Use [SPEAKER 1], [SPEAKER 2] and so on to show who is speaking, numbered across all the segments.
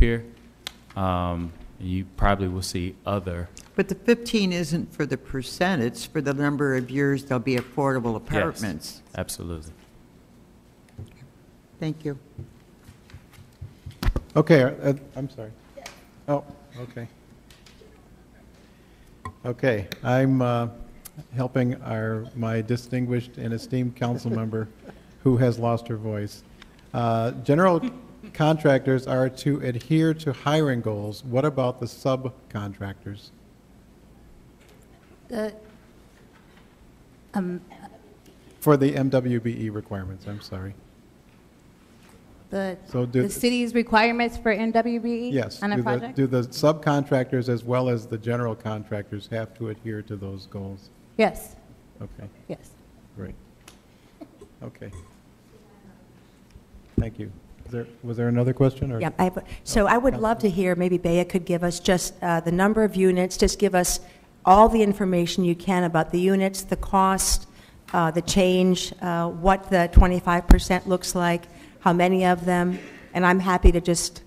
[SPEAKER 1] pier. Um, You probably will see other,
[SPEAKER 2] But the 15 isn't for the percent, it's for the number of years there'll be affordable apartments.
[SPEAKER 1] absolutely.
[SPEAKER 2] Thank you.
[SPEAKER 3] Okay, uh, I'm sorry. Oh, okay. Okay, I'm uh, helping our, my distinguished and esteemed council member who has lost her voice. Uh, General contractors are to adhere to hiring goals. What about the subcontractors?
[SPEAKER 4] The, um,
[SPEAKER 3] For the MWBE E requirements, I'm sorry.
[SPEAKER 4] the,
[SPEAKER 3] So do,
[SPEAKER 4] the city's requirements for NWBE?
[SPEAKER 3] yes.
[SPEAKER 4] E On
[SPEAKER 3] do
[SPEAKER 4] a
[SPEAKER 3] the-
[SPEAKER 4] project?
[SPEAKER 3] Do the subcontractors as well as the general contractors have to adhere to those goals?
[SPEAKER 4] Yes,
[SPEAKER 3] Okay.
[SPEAKER 4] yes.
[SPEAKER 3] Great. Okay. Thank you. Is there, was there another question, or?
[SPEAKER 5] Yeah, I, have- so I would love to hear, maybe Baya could give us just uh, the number of units, just give us all the information you can about the units, the cost, uh, the change, uh, what the 25% looks like, how many of them, and I'm happy to just,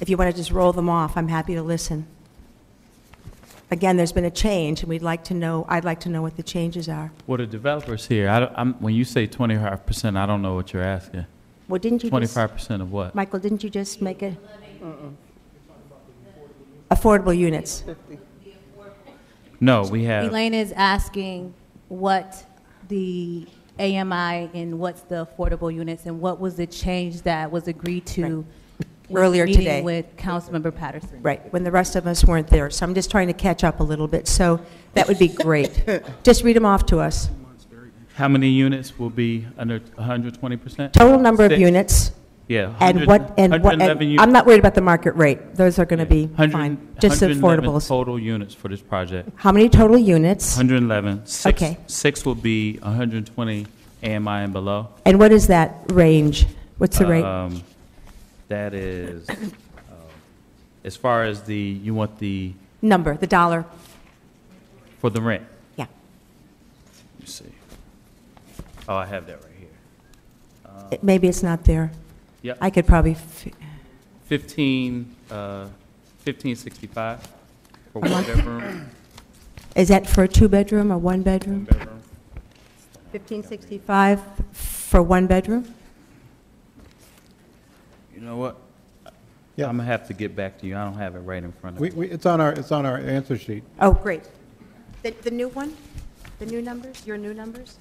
[SPEAKER 5] if you want to just roll them off, I'm happy to listen. Again, there's been a change, and we'd like to know, I'd like to know what the changes are.
[SPEAKER 1] Well, the developers here, I, don't- I'm, when you say twenty-five percent, I don't know what you're asking.
[SPEAKER 5] Well, didn't you just,
[SPEAKER 1] Twenty-five percent of what?
[SPEAKER 5] Michael, didn't you just make it? Affordable units.
[SPEAKER 1] No, we have,
[SPEAKER 4] Elaine is asking what the AMI and what's the affordable units and what was the change that was agreed to? with
[SPEAKER 5] Earlier
[SPEAKER 4] meeting
[SPEAKER 5] today.
[SPEAKER 4] With Councilmember Patterson.
[SPEAKER 5] Right, when the rest of us weren't there. So I'm just trying to catch up a little bit, so that would be great. Just read them off to us.
[SPEAKER 1] how many units will be under hundred twenty percent?
[SPEAKER 5] Total number of
[SPEAKER 1] Six.
[SPEAKER 5] units,
[SPEAKER 1] Yeah.
[SPEAKER 5] and what, and what, and I'm not worried about the market rate. Those are going to be fine, just affordables.
[SPEAKER 1] Total units for this project,
[SPEAKER 5] How many total units?
[SPEAKER 1] hundred and eleven. Six,
[SPEAKER 5] Okay.
[SPEAKER 1] six will be hundred and twenty AMI and below.
[SPEAKER 5] And what is that range? What's the rate?
[SPEAKER 1] Um, That is, um, as far as the, you want the,
[SPEAKER 5] Number, the dollar?
[SPEAKER 1] for the rent?
[SPEAKER 5] Yeah.
[SPEAKER 1] Let me see. Oh, I have that right here. Uh,
[SPEAKER 5] It- Maybe it's not there.
[SPEAKER 1] Yep.
[SPEAKER 5] I could probably, f-
[SPEAKER 1] 15, uh, 1565 for one bedroom.
[SPEAKER 5] is that for a two-bedroom or one-bedroom?
[SPEAKER 1] bedroom.
[SPEAKER 5] 1565 for one bedroom?
[SPEAKER 1] You know what?
[SPEAKER 3] Yeah.
[SPEAKER 1] I'm gonna have to get back to you. I don't have it right in front of
[SPEAKER 3] We,
[SPEAKER 1] me.
[SPEAKER 3] we, it's on our, it's on our answer sheet.
[SPEAKER 5] Oh, great. The, the new one? The new numbers, your new numbers?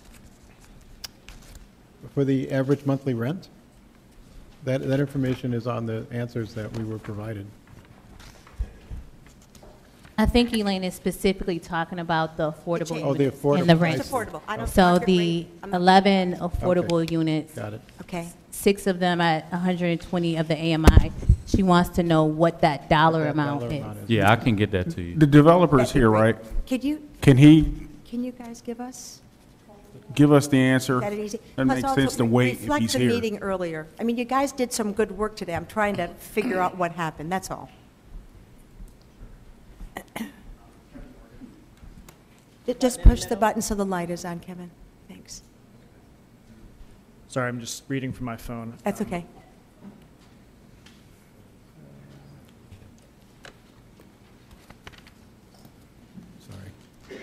[SPEAKER 3] For the average monthly rent, that, that information is on the answers that we were provided.
[SPEAKER 4] I think Elaine is specifically talking about the affordable
[SPEAKER 3] Oh, the
[SPEAKER 4] units
[SPEAKER 3] affordable,
[SPEAKER 4] and the
[SPEAKER 3] I
[SPEAKER 4] rent.
[SPEAKER 3] see. It's
[SPEAKER 5] affordable. I don't-
[SPEAKER 4] So
[SPEAKER 5] market
[SPEAKER 4] the
[SPEAKER 5] rate, I'm not-
[SPEAKER 4] 11 affordable units,
[SPEAKER 3] Got it?
[SPEAKER 5] Okay.
[SPEAKER 4] six of them at 120 of the AMI. She wants to know what that dollar
[SPEAKER 3] That
[SPEAKER 4] amount is.
[SPEAKER 3] amount is.
[SPEAKER 1] Yeah, I can get that to you.
[SPEAKER 6] The developer's here, right?
[SPEAKER 5] Could you,
[SPEAKER 6] Can he
[SPEAKER 5] can you guys give us?
[SPEAKER 6] give us the answer?
[SPEAKER 5] that an easy?
[SPEAKER 6] Doesn't
[SPEAKER 5] Plus
[SPEAKER 6] make
[SPEAKER 5] also
[SPEAKER 6] sense to wait if
[SPEAKER 5] reflect
[SPEAKER 6] he's
[SPEAKER 5] the
[SPEAKER 6] here.
[SPEAKER 5] meeting earlier. I mean, you guys did some good work today. I'm trying to figure out what happened, that's all. Ju- Just push the button so the light is on, Kevin. Thanks.
[SPEAKER 7] Sorry, I'm just reading from my phone.
[SPEAKER 5] That's
[SPEAKER 7] Um,
[SPEAKER 5] okay.
[SPEAKER 3] Sorry.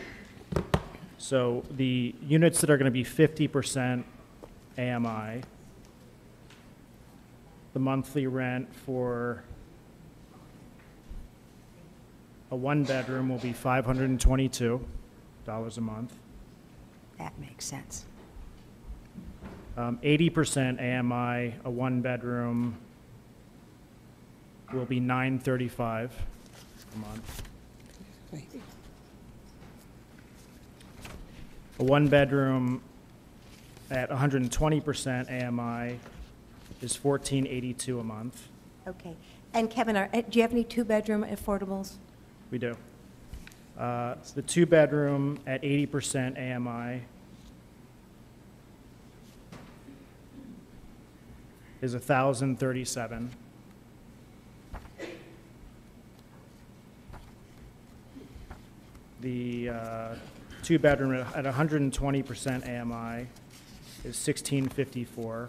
[SPEAKER 7] So the units that are going to be 50% AMI, the monthly rent for a one-bedroom will be $522 a month.
[SPEAKER 5] That makes sense.
[SPEAKER 7] Um, 80% AMI, a one-bedroom will be 935 a month. A one-bedroom at 120% AMI is 1482 a month.
[SPEAKER 5] Okay. And Kevin, are, eh, do you have any two-bedroom affordables?
[SPEAKER 7] We do. Uh, The two-bedroom at 80% AMI is 1,037. The uh, two-bedroom at at 120% AMI is 1,654,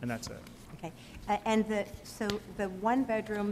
[SPEAKER 7] and that's it.
[SPEAKER 5] Okay. Uh, And the, so the one-bedroom